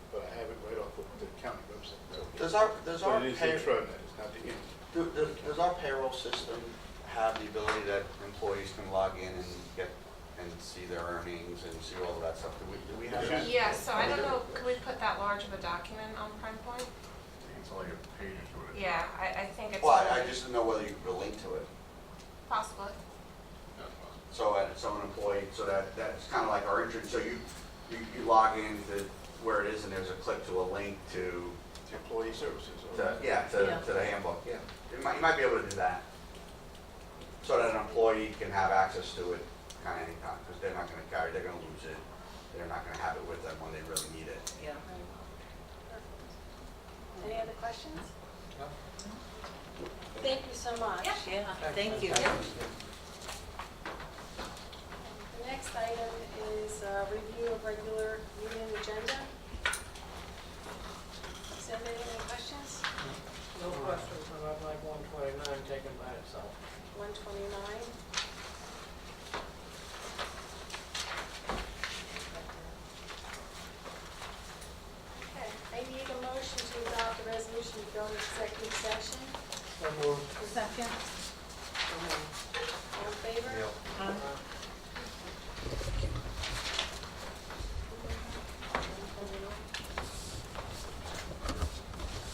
Does our, does our But it is pay- the intranet, it's not the internet. do- do- does our payroll system have the ability that employees can log in and get, and see their earnings and see all of that stuff? Do we, do we have that? Yeah, so I don't know, could we put that large of a document on Prime Point? It's only a page or two. Yeah, I, I think it's Well, I I just didn't know whether you could link to it. possible. So, uh, so an employee, so that, that's kind of like our entrance, so you, you, you log in to where it is and there's a click to a link to, It's employee services. or- to, yeah, to, Yeah. to the handbook, yeah. You might, you might be able to do that. So that an employee can have access to it kind of anytime, because they're not gonna carry, they're gonna lose it. They're not gonna have it with them when they really need it. Yeah. Any other questions? Thank you so much. Yeah. Yeah, thank you. The next item is uh, review of regular meeting agenda. Does anybody have any questions? No questions about like one twenty-nine taken by itself. One twenty-nine. Okay, I need a motion to adopt the resolution to go into executive session. So moved. Second. All in favor? Aye.